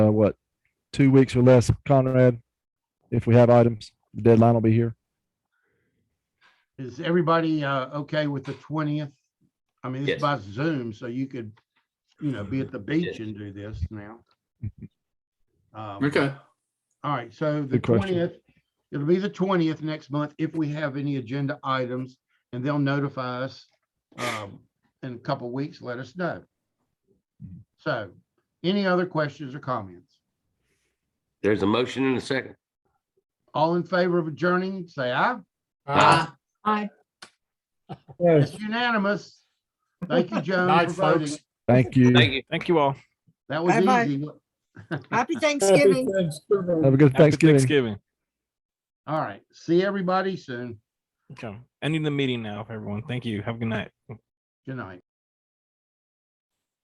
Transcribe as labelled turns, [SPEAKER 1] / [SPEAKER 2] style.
[SPEAKER 1] uh, what, two weeks or less, Conrad? If we have items, the deadline will be here.
[SPEAKER 2] Is everybody uh, okay with the twentieth? I mean,
[SPEAKER 3] Yes.
[SPEAKER 2] it's by Zoom, so you could, you know, be at the beach
[SPEAKER 3] Yes.
[SPEAKER 2] and do this now. Um,
[SPEAKER 4] Okay,
[SPEAKER 2] All right, so the
[SPEAKER 1] Good question.
[SPEAKER 2] twentieth, it'll be the twentieth next month if we have any agenda items, and they'll notify us um, in a couple weeks, let us know. So, any other questions or comments?
[SPEAKER 3] There's a motion and a second.
[SPEAKER 2] All in favor of adjourning, say aye.
[SPEAKER 4] uh,
[SPEAKER 5] Aye.
[SPEAKER 2] It's unanimous. Thank you, Joan,
[SPEAKER 4] night,
[SPEAKER 2] for voting.
[SPEAKER 4] folks.
[SPEAKER 1] Thank you.
[SPEAKER 3] Thank you.
[SPEAKER 6] Thank you all.
[SPEAKER 2] That was
[SPEAKER 5] Bye-bye.
[SPEAKER 2] easy.
[SPEAKER 5] Happy Thanksgiving.
[SPEAKER 1] Have a good
[SPEAKER 6] Happy
[SPEAKER 1] Thanksgiving.
[SPEAKER 6] Thanksgiving.
[SPEAKER 2] All right, see everybody soon.
[SPEAKER 6] Okay. Ending the meeting now, everyone. Thank you. Have a good night.
[SPEAKER 2] Good night.